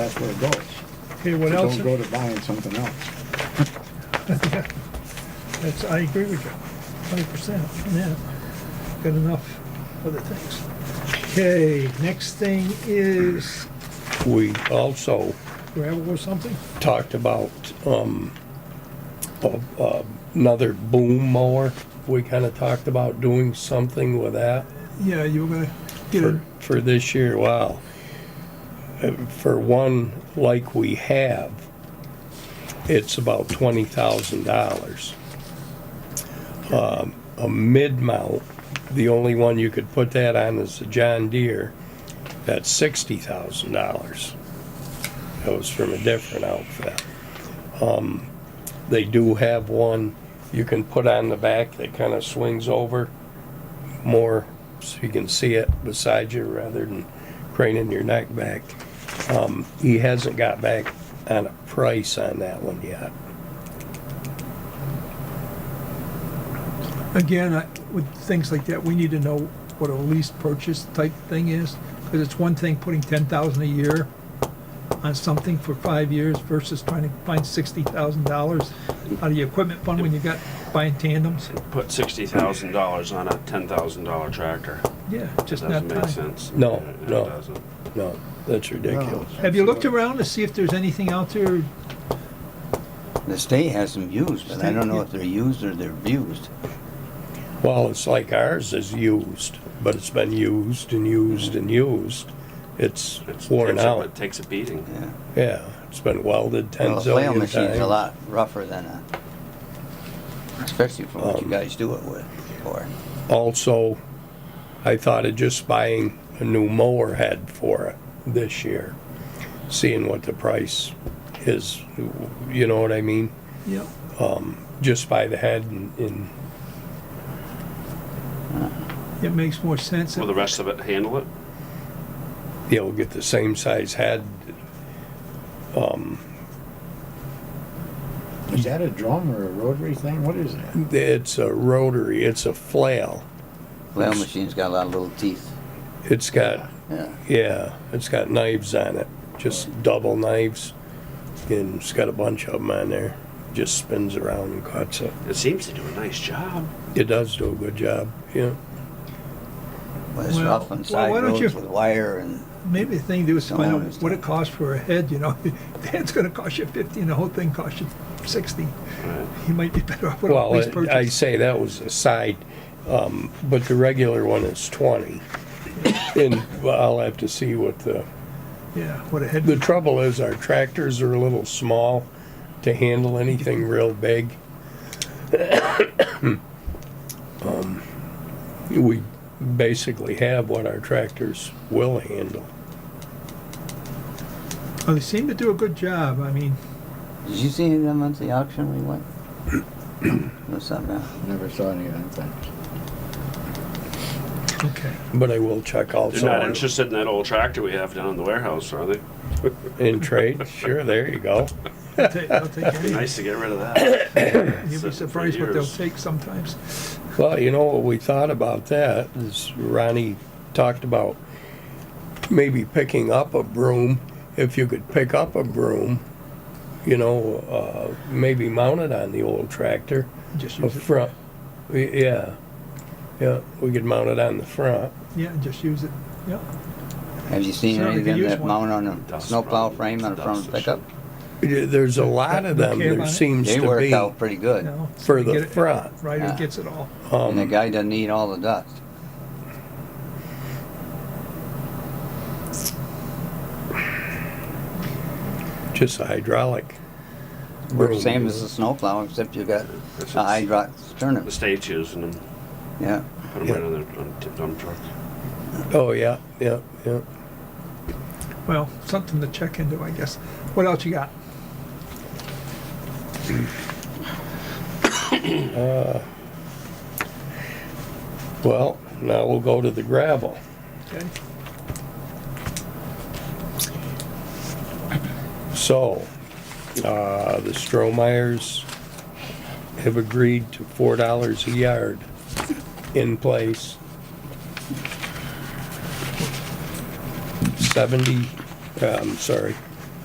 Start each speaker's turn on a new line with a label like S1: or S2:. S1: that's where it goes.
S2: Okay, what else?
S1: Don't go to buying something else.
S2: That's, I agree with you, hundred percent, yeah. Got enough other things. Okay, next thing is
S3: We also
S2: gravel or something?
S3: talked about, um, a- a- another boom mower. We kinda talked about doing something with that
S2: Yeah, you were gonna get it,
S3: for, for this year, wow. Uh, For one like we have, it's about twenty thousand dollars. Um, A mid-mount, the only one you could put that on is the John Deere, that's sixty thousand dollars. That was from a different outfit. Um, They do have one you can put on the back that kind of swings over more so you can see it beside you rather than craning your neck back. Um, he hasn't got back on a price on that one yet.
S2: again, I- with things like that, we need to know what a lease purchase type thing is, because it's one thing putting ten thousand a year on something for five years versus trying to find sixty thousand dollars out of your equipment fund when you got buying tandems.
S4: put sixty thousand dollars on a ten thousand dollar tractor.
S2: Yeah, just not
S4: Doesn't make
S2: time.
S4: sense.
S3: No,
S4: It- it
S3: no.
S4: doesn't.
S3: No, that's ridiculous.
S2: Have you looked around to see if there's anything out there
S5: The state has them used, but I don't know
S2: State,
S5: if they're used or they're abused.
S3: Well, it's like ours is used, but it's been used and used and used. It's
S4: It's-
S3: worn
S4: takes a-
S3: out.
S4: It takes a beating.
S5: Yeah.
S3: Yeah, it's been welded ten
S5: Well, a flail
S3: zillion
S5: machine's a
S3: times.
S5: lot rougher than a, especially for what you
S2: Um,
S5: guys do it with, or,
S3: Also, I thought of just buying a new mower head for it this year, seeing what the price is. You know what I mean?
S2: Yep.
S3: just by the head and, and
S2: It makes more sense.
S4: Will the rest of it handle it?
S3: you know get the same size head.
S1: Is that a drum or a rotary thing? What is that?
S3: It's a rotary. It's a flail.
S5: flail machine's got a lot of little teeth.
S3: It's got
S5: Yeah,
S3: yeah. It's got knives on it. Just double knives, and it's got a bunch of them on there. Just spins around and cuts it.
S4: It seems to do a nice job.
S3: It does do a good job. Yeah.
S5: well, it's
S2: Well,
S5: rough on
S2: well,
S5: side
S2: why don't
S5: roads
S2: you-
S5: with wire and,
S2: Maybe the thing to do is
S5: Don't
S2: find out
S5: understand.
S2: what it costs for a head, you know? The head's gonna cost you fifty and the whole thing costs you sixty.
S4: Right.
S2: You might be better off with a
S3: Well,
S2: lease
S3: I- I
S2: purchase.
S3: say that was a side, um, but the regular one is twenty. And I'll have to see what the
S2: Yeah, what a head,
S3: The trouble is our tractors are a little small to handle anything real big. Um, We basically have what our tractors will handle.
S2: oh, they seem to do a good job, I mean,
S5: did you see any of them at the auction we went? What's that now?
S1: Never saw any of that thing.
S2: okay.
S3: But I will check
S4: They're
S3: also
S4: not
S3: on-
S4: interested in that old tractor we have down in the warehouse, are they?
S3: in trade. Sure, there you go.
S2: I'll take, I'll take
S4: Be
S2: any,
S4: nice to get rid of that.
S2: you'll
S4: for
S2: be surprised what they'll
S4: years.
S2: take sometimes.
S3: Well, you know what we thought about that is Ronnie talked about maybe picking up a broom. If you could pick up a broom, you know, uh, maybe mount it on the old tractor.
S2: Just
S3: A
S2: use it,
S3: front, y- yeah, yeah, we could mount it on the front.
S2: yeah, just use it, yeah.
S5: Have you seen
S2: Sure,
S5: any
S2: you
S5: of
S2: can
S5: them
S2: use
S5: that
S2: one.
S5: mount on a
S4: Dust
S5: snowplow
S4: problem.
S5: frame on a front
S4: Dust
S5: pickup?
S3: Yeah, There's a lot of them,
S2: Okay
S3: there
S2: about it?
S3: seems
S5: They
S3: to
S5: work
S3: be.
S5: out pretty good,
S2: No, so
S3: For
S2: you
S3: the
S2: get it-
S3: front.
S2: Ryder
S5: Yeah.
S2: gets it all,
S5: and the
S3: Um,
S5: guy doesn't eat all the dust.
S3: just a hydraulic. broom.
S5: Works same as a snowplow, except you got a hydraulic sternum,
S4: The state's using them.
S5: yeah.
S4: Put them right on their on tip dump truck.
S3: Oh, yeah, yeah, yeah.
S2: well, something to check into, I guess. What else you got?
S3: Well, now we'll go to the gravel.
S2: Okay,
S3: So, uh, the Stromeyers have agreed to four dollars a yard in place. Seventy, uh, I'm sorry,